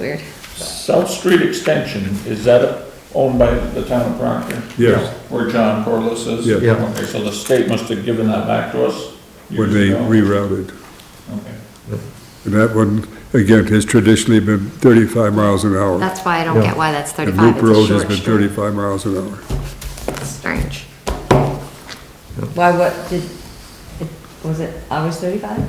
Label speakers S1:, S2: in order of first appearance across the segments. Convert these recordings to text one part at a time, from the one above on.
S1: Weird.
S2: South Street Extension, is that owned by the town of Proctor?
S3: Yes.
S2: Where John Corliss is?
S3: Yeah.
S4: Yeah.
S2: Okay, so the state must have given that back to us?
S3: when
S2: years
S3: they
S2: ago?
S3: rerouted.
S2: Okay.
S3: And that one, again, has traditionally been 35 miles an hour.
S1: That's why I don't
S4: Yeah.
S1: get why that's
S3: And
S1: thirty-five.
S3: Loop
S1: It's a
S3: Road has
S1: short
S3: been
S1: street.
S3: 35 miles an hour.
S1: Strange.
S5: Why, what, did, it- was it always 35?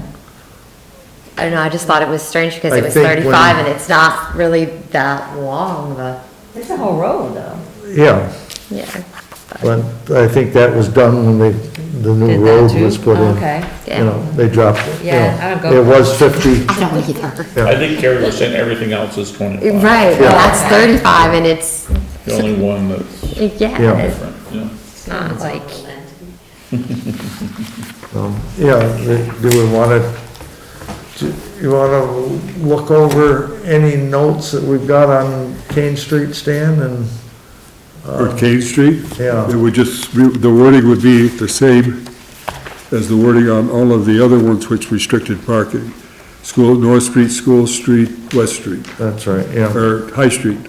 S1: I don't know, I just thought it was strange because
S4: I
S1: it was
S4: think when-
S1: thirty-five and it's not really that long, but,
S5: It's a whole road, though.
S4: Yeah,
S1: yeah.
S4: but I think that was done when they, the
S5: Did
S4: new
S5: that
S4: road
S5: too?
S4: was put in.
S5: Oh, Okay.
S4: You know, they dropped it. you
S5: Yeah,
S4: know.
S5: I don't go-
S4: It was fifty,
S1: I don't either.
S2: I think Carrie was saying everything else is twenty-five.
S1: Right, well, that's thirty-five and it's,
S2: The only one that's
S1: yeah,
S4: Yeah.
S1: it's
S2: different, yeah.
S1: not like,
S4: um, yeah, they- do we wanna, do you wanna look over any notes that we've got on Kane Street, Stan, and,
S3: Or Kane Street?
S4: yeah.
S3: It would just, be- the wording would be the same as the wording on all of the other ones which restricted parking. School, North Street, School Street, West Street,
S4: that's right, yeah,
S3: or High Street.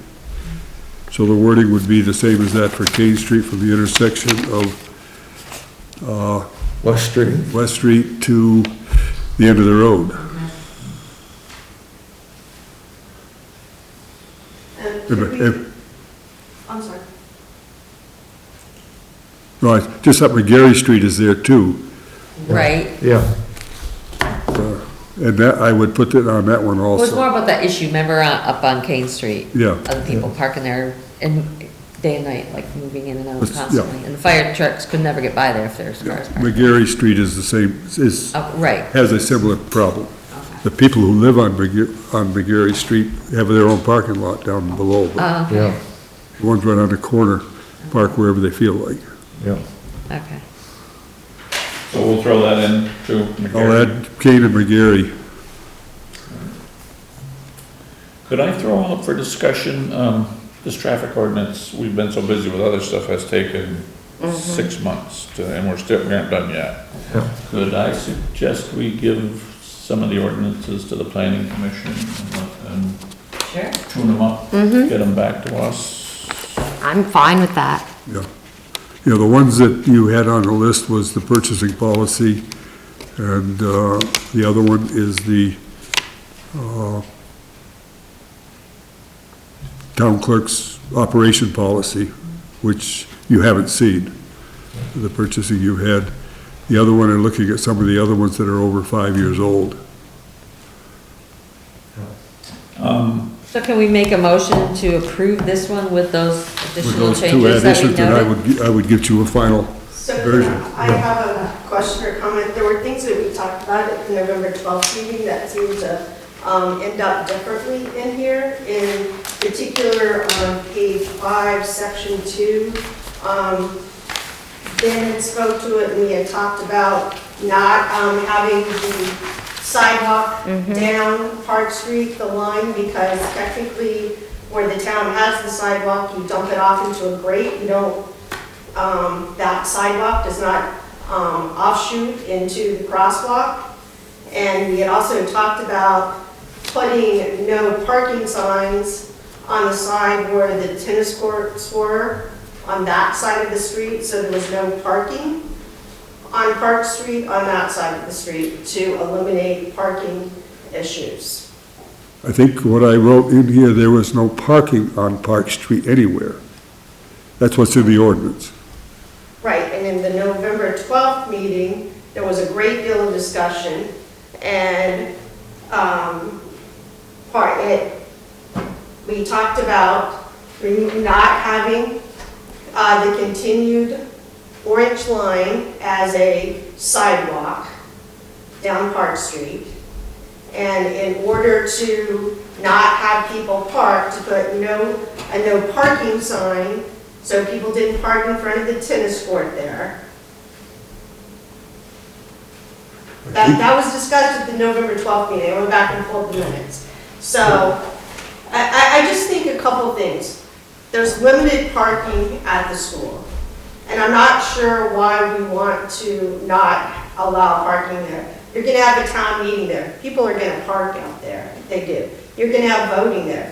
S3: So the wording would be the same as that for Kane Street from the intersection of
S4: West Street.
S3: West Street to the end of the road.
S6: And
S3: If-
S6: Uh, we-
S3: if-
S6: I'm sorry.
S3: Right, just up where Gary Street is there too.
S5: Right.
S4: Yeah,
S3: And that, I would put that on that one
S5: It was more
S3: also.
S5: about that issue, remember, uh, up on Kane Street?
S3: Yeah.
S5: Other people parking there and day and night, like moving in and out
S3: It's- yeah.
S5: constantly. And the fire trucks could never get by there if there's cars parked.
S3: McGarry Street is the same, is,
S5: Oh, Right.
S3: has a similar problem. The people who live on McGarry, on McGarry Street have their own parking lot down below. but
S6: Uh-huh.
S5: Oh,
S4: yeah,
S3: the Ones right on the corner, park wherever they feel like.
S4: yeah.
S5: okay.
S2: So we'll throw that in to
S3: I'll
S2: McGarry.
S3: add Kane and Oh, McGarry.
S2: Could I throw out for discussion, um, this traffic ordinance, we've been so busy with other stuff, has taken six months to, and we're still, we aren't done yet.
S4: Yeah.
S2: Could I suggest we give some of the ordinances to the planning commission and let them
S5: Sure.
S2: tune them up? Get them back to us?
S1: I'm fine with that.
S3: Yeah. You know, the ones that you had on the list was the purchasing policy, and uh, the other one is the uh, town clerk's operation policy, which you haven't seen, the purchasing you had. The other one, and looking at some of the other ones that are over five years old.
S5: So can we make a motion to approve this one with those
S3: With
S5: additional
S3: those two
S5: changes that we
S3: additions, and I
S5: noted?
S3: would, gi- I would get you a final
S6: So
S3: version.
S6: I
S3: yeah.
S6: have a question or comment. There were things that we talked about at the November 12th meeting that seemed to um, end up differently in here. In particular, on page five, section two, um, Ben had spoke to it and we had talked about not um, having the sidewalk down Park Street, the line, because technically where the town has the sidewalk, you dump it off into a grate, you don't, um, that sidewalk does not um, offshoot into the crosswalk. And we had also talked about putting no parking signs on the side where the tennis courts were, on that side of the street, so there was no parking on Park Street, on that side of the street, to eliminate parking issues.
S3: I think what I wrote in here, there was no parking on Park Street anywhere. That's what's in the ordinance.
S6: Right, and in the November 12th meeting, there was a great deal of discussion, and um, part, it, we talked about remo- not having uh, the continued orange line as a sidewalk down Park Street. And in order to not have people park, to put no, a no parking sign, so people didn't park in front of the tennis court there. That, that was discussed at the November 12th meeting, I went back and pulled the minutes. So, I, I, I just think a couple things. There's limited parking at the school, and I'm not sure why we want to not allow parking there. You're gonna have a town meeting there, people are gonna park out there, they do. You're gonna have voting there,